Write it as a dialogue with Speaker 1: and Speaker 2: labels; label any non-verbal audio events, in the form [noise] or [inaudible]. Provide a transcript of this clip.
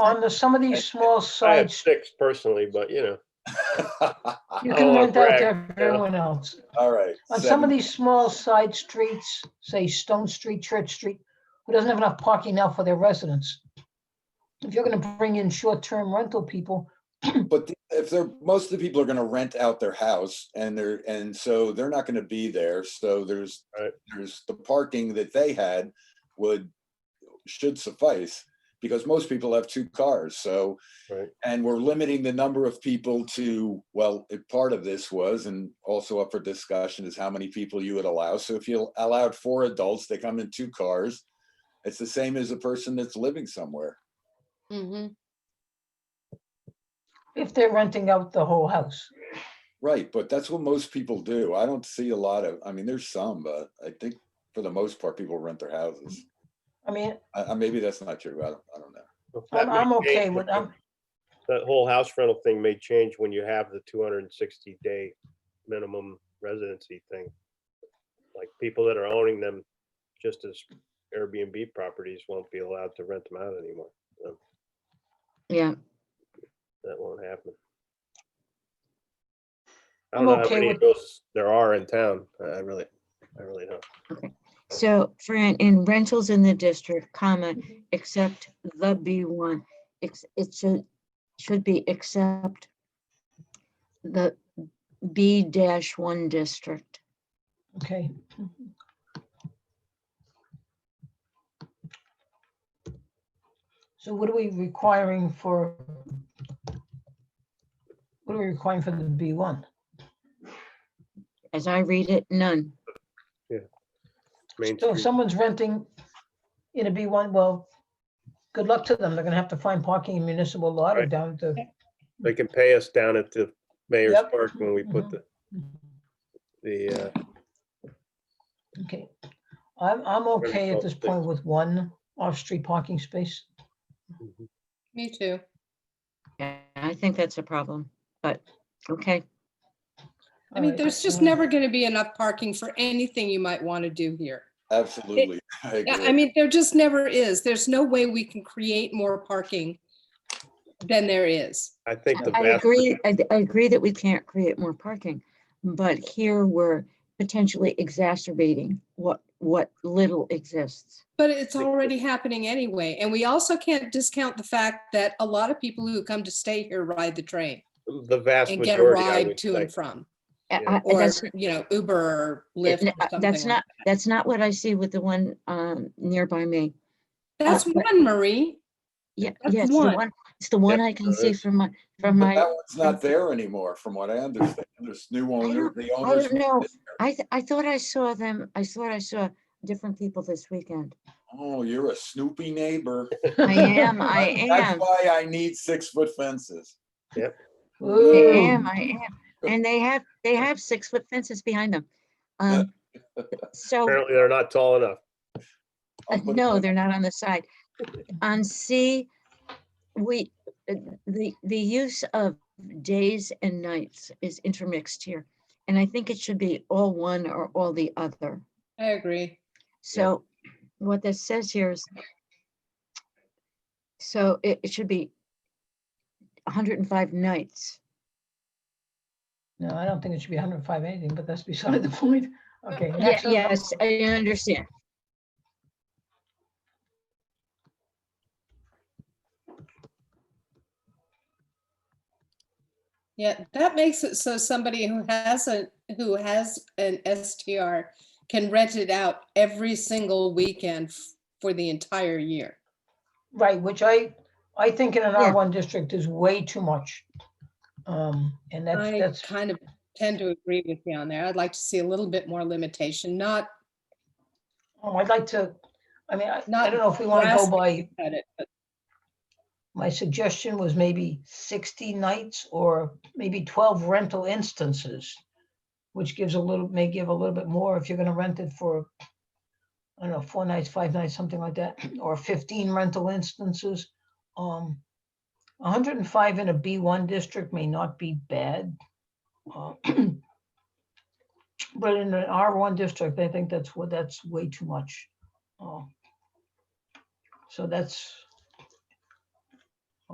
Speaker 1: on the, some of these small
Speaker 2: I have
Speaker 1: sites,
Speaker 2: six personally, but you know,
Speaker 1: you
Speaker 2: I
Speaker 1: can
Speaker 2: don't wanna
Speaker 1: rent out
Speaker 2: brag,
Speaker 1: to everyone else.
Speaker 3: [laughs] All right.
Speaker 1: On some of
Speaker 3: seven.
Speaker 1: these small side streets, say Stone Street, Church Street, who doesn't have enough parking now for their residents. If you're gonna bring in short-term rental people,
Speaker 3: But the- if they're, most of the people are gonna rent out their house and they're, and so they're not gonna be there, so there's,
Speaker 2: Right.
Speaker 3: there's the parking that they had would, should suffice, because most people have two cars, so.
Speaker 2: Right.
Speaker 3: And we're limiting the number of people to, well, it- part of this was, and also up for discussion is how many people you would allow. So if you allowed four adults, they come in two cars. It's the same as a person that's living somewhere.
Speaker 4: Mhm.
Speaker 1: if they're renting out the whole house.
Speaker 3: Right, but that's what most people do. I don't see a lot of, I mean, there's some, but I think for the most part, people rent their houses.
Speaker 1: I mean,
Speaker 3: I, I, maybe that's not true. I don't, I don't know.
Speaker 2: if that
Speaker 1: I'm,
Speaker 2: may
Speaker 1: I'm okay
Speaker 2: change
Speaker 1: with,
Speaker 2: when-
Speaker 1: I'm,
Speaker 2: That whole house rental thing may change when you have the two hundred and sixty day minimum residency thing. Like people that are owning them, just as Airbnb properties won't be allowed to rent them out anymore.
Speaker 4: Yeah,
Speaker 2: That won't happen. I
Speaker 1: I'm
Speaker 2: don't know how
Speaker 1: okay
Speaker 2: many
Speaker 1: with-
Speaker 2: of those there are in town. I I really, I really don't.
Speaker 4: so for in- in rentals in the district, comma, except the B one, it's, it should, should be except the B dash one district.
Speaker 1: okay. So what are we requiring for? What are we requiring for the B one?
Speaker 4: As I read it, none.
Speaker 2: Main
Speaker 1: So if
Speaker 2: Street,
Speaker 1: someone's renting in a B one, well, good luck to them. They're gonna have to find parking in municipal lot or
Speaker 2: Right.
Speaker 1: down to.
Speaker 2: They can pay us down at the mayor's
Speaker 1: Yep.
Speaker 2: park when we put
Speaker 1: Mhm.
Speaker 2: the, the, uh,
Speaker 1: Okay, I'm, I'm okay at
Speaker 2: close,
Speaker 1: this
Speaker 2: please.
Speaker 1: point with one off-street parking space.
Speaker 5: Me too.
Speaker 4: Yeah, I think that's a problem, but, okay,
Speaker 5: I mean,
Speaker 1: Alright,
Speaker 5: there's just
Speaker 1: um,
Speaker 5: never going to be enough parking for anything you might want to do here.
Speaker 3: Absolutely. [laughs] I
Speaker 5: Yeah,
Speaker 3: agree.
Speaker 5: I mean, there just never is. There's no way we can create more parking than there is.
Speaker 2: I think the
Speaker 4: I
Speaker 2: vast
Speaker 4: agree, I, I agree that we can't create more parking, but here we're potentially exacerbating what, what little exists.
Speaker 5: But it's already happening anyway. And we also can't discount the fact that a lot of people who come to stay here ride the train
Speaker 2: the vast
Speaker 5: and get a
Speaker 2: majority, I
Speaker 5: ride
Speaker 2: would
Speaker 5: to
Speaker 2: say.
Speaker 5: and from,
Speaker 4: I-
Speaker 2: Yeah.
Speaker 4: I-
Speaker 5: or,
Speaker 4: that's-
Speaker 5: you know, Uber or
Speaker 4: it-
Speaker 5: Lyft.
Speaker 4: n-
Speaker 5: or
Speaker 4: uh, That's
Speaker 5: something
Speaker 4: not,
Speaker 5: like-
Speaker 4: that's not what I see with the one um, nearby me.
Speaker 5: That's
Speaker 4: uh,
Speaker 5: one, Marie.
Speaker 4: Yeah,
Speaker 5: That's
Speaker 4: yeah, it's the
Speaker 5: one.
Speaker 4: one, it's the one I can
Speaker 2: there
Speaker 4: see
Speaker 2: is.
Speaker 4: from my, from
Speaker 3: But that
Speaker 4: my,
Speaker 3: one's not there anymore, from what I understand. There's new owner,
Speaker 4: don't-
Speaker 3: the
Speaker 4: I
Speaker 3: owners.
Speaker 4: don't know. I, th- I thought I saw them, I thought I saw different people this
Speaker 5: [laughs]
Speaker 4: weekend.
Speaker 3: Oh, you're a snoopy neighbor.
Speaker 4: [laughs] I am, I
Speaker 3: That's
Speaker 4: am,
Speaker 3: why I need six foot fences.
Speaker 4: I
Speaker 1: [laughs] Ooh,
Speaker 4: am, I am.
Speaker 3: [laughs]
Speaker 4: And they have, they have six foot fences behind them. Um, So,
Speaker 2: Apparently, they're not tall enough.
Speaker 3: I'll
Speaker 4: uh,
Speaker 3: put
Speaker 4: no,
Speaker 3: them-
Speaker 4: they're not on the side. On C, we, uh, the, the use of days and nights is intermixed here. And I think it should be all one or all the other.
Speaker 5: I agree.
Speaker 4: So what this says here is, so it, it should be hundred and five nights.
Speaker 1: No, I don't think it should be hundred and five anything, but that's beside the [laughs] point. Okay.
Speaker 4: Ye-
Speaker 1: next up-
Speaker 4: Yes, I understand.
Speaker 5: Yeah, that makes it so somebody who hasn't, who has an STR can rent it out every single weekend f- for the entire year.
Speaker 1: Right, which I, I think in an
Speaker 4: Yeah.
Speaker 1: R one district is way too much. Um, and that's,
Speaker 5: I
Speaker 1: that's,
Speaker 5: kind of tend to agree with you on there. I'd like to see a little bit more limitation, not,
Speaker 1: oh, I'd like to, I mean, I, I
Speaker 5: Not
Speaker 1: don't know if we want to go
Speaker 5: drastic.
Speaker 1: by,
Speaker 5: cut it, but
Speaker 1: my suggestion was maybe sixty nights or maybe twelve rental instances. Which gives a little, may give a little bit more if you're gonna rent it for, I don't know, four nights, five nights, something like that, [clears throat] or fifteen rental instances. Um, hundred and five in a B one district may not be bad. uh, [clears throat] But in an R one district, I think that's what, that's way too much. Uh, So that's,